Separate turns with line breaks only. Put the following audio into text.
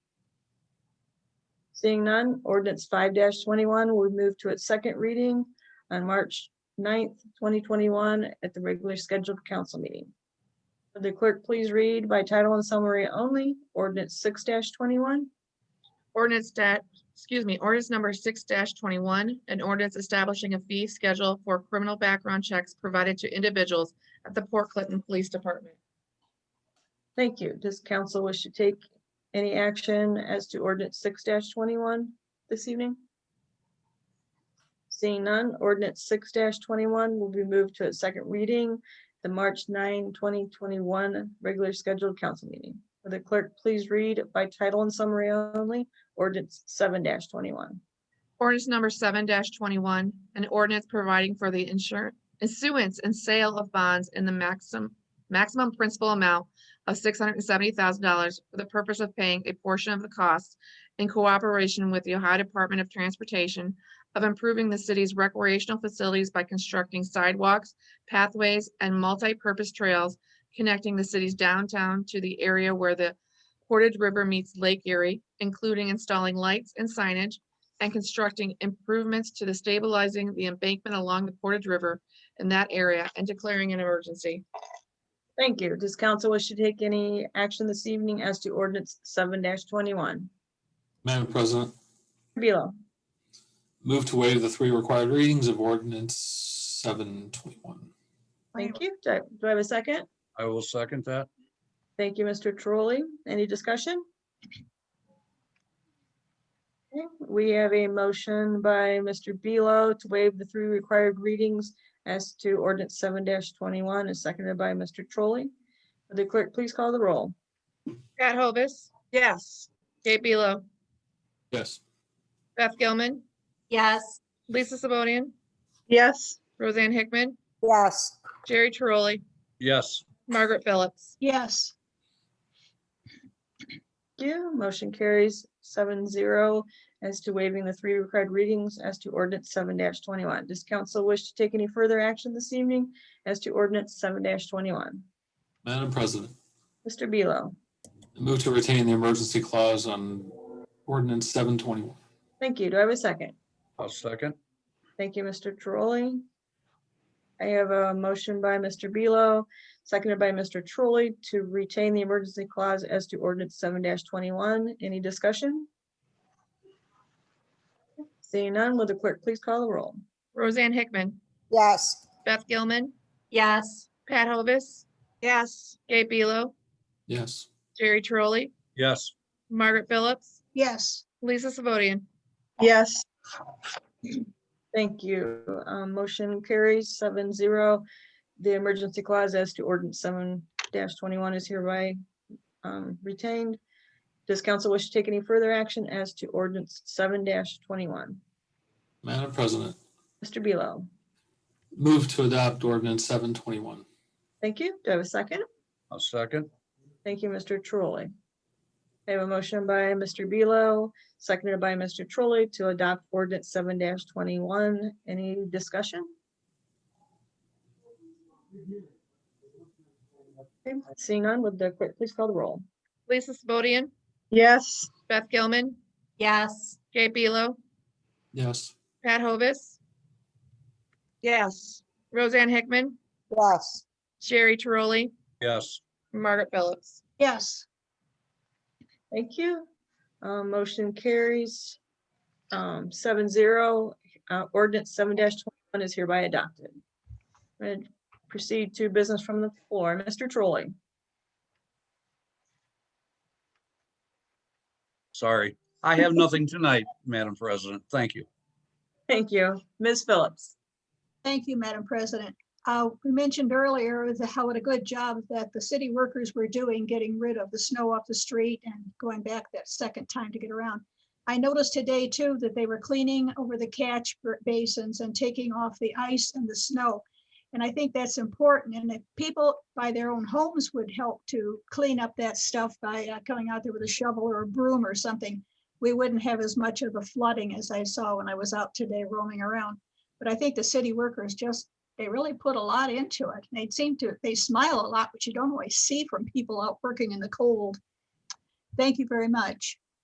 Seeing none, ordinance five twenty-one will move to its second reading on March 9th, twenty twenty-one at the regularly scheduled council meeting. Would the clerk please read by title and summary only, ordinance six twenty-one?
Ordinance stat, excuse me, ordinance number six twenty-one, an ordinance establishing a fee schedule for criminal background checks provided to individuals at the Port Clinton Police Department.
Thank you. Does council wish to take any action as to ordinance six twenty-one this evening? Seeing none, ordinance six twenty-one will be moved to its second reading, the March 9, 2021 regular scheduled council meeting. Will the clerk please read by title and summary only, ordinance seven twenty-one?
Ordinance number seven twenty-one, an ordinance providing for the insurance, issuance and sale of bonds in the maximum, maximum principal amount of six hundred and seventy thousand dollars for the purpose of paying a portion of the cost in cooperation with the Ohio Department of Transportation of improving the city's recreational facilities by constructing sidewalks, pathways, and multi-purpose trails connecting the city's downtown to the area where the Portage River meets Lake Erie, including installing lights and signage, and constructing improvements to the stabilizing the embankment along the Portage River in that area and declaring an emergency.
Thank you. Does council wish to take any action this evening as to ordinance seven twenty-one?
Madam President,
Beal,
move to waive the three required readings of ordinance seven twenty-one.
thank you. Do I do I have a second?
I will second that.
Thank you, Mr. Trolley. Any discussion? Okay, We have a motion by Mr. Belo to waive the three required readings as to ordinance seven twenty-one is seconded by Mr. Trolley. Will The clerk, please call the roll.
Pat Hovis,
Yes.
Gabe Belo,
Yes.
Beth Gilman,
Yes.
Lisa Sabodian,
Yes.
Roseanne Hickman,
Yes.
Jerry Trolley,
Yes,
Margaret Phillips.
Yes.
Thank You, motion carries seven zero as to waiving the three required readings as to ordinance seven twenty-one. Does council wish to take any further action this evening as to ordinance seven twenty-one?
Madam President,
Mr. Belo.
move to retain the emergency clause on ordinance seven twenty-one.
Thank you. Do I have a second?
I'll second.
Thank you, Mr. Trolley. I have a motion by Mr. Belo, seconded by Mr. Trolley to retain the emergency clause as to ordinance seven twenty-one. Any discussion? Seeing none, will the clerk please call the roll?
Roseanne Hickman,
Yes.
Beth Gilman,
Yes.
Pat Hovis,
Yes.
Gabe Belo,
Yes.
Jerry Trolley,
Yes,
Margaret Phillips,
Yes.
Lisa Sabodian.
Yes.
Thank you. Um, Motion carries seven zero. The emergency clause as to ordinance seven twenty-one is hereby um, retained. Does council wish to take any further action as to ordinance seven twenty-one?
Madam President,
Mr. Belo.
move to adopt ordinance seven twenty-one.
Thank you. Do I have a second?
I'll second.
Thank you, Mr. Trolley. I have a motion by Mr. Belo, seconded by Mr. Trolley to adopt ordinance seven twenty-one. Any discussion? Okay, Seeing none, would the clerk please call the roll?
Lisa Sabodian,
Yes.
Beth Gilman,
Yes.
Gabe Belo,
Yes.
Pat Hovis,
Yes.
Roseanne Hickman,
Yes.
Jerry Trolley,
Yes,
Margaret Phillips.
Yes.
Thank you. Uh, Motion carries um, seven zero. Uh, Ordinance seven twenty-one is hereby adopted. And proceed to business from the floor. Mr. Trolley.
sorry. I have nothing tonight, Madam President. Thank you.
Thank you. Ms. Phillips.
Thank you, Madam President. Uh, We mentioned earlier the- how what a good job that the city workers were doing getting rid of the snow off the street and going back that second time to get around. I noticed today too that they were cleaning over the catch b- basins and taking off the ice and the snow. And I think that's important. And if people by their own homes would help to clean up that stuff by uh, coming out there with a shovel or a broom or something, we wouldn't have as much of the flooding as I saw when I was out today roaming around. But I think the city workers just, they really put a lot into it. They seem to, they smile a lot, which you don't always see from people out working in the cold. Thank you very much.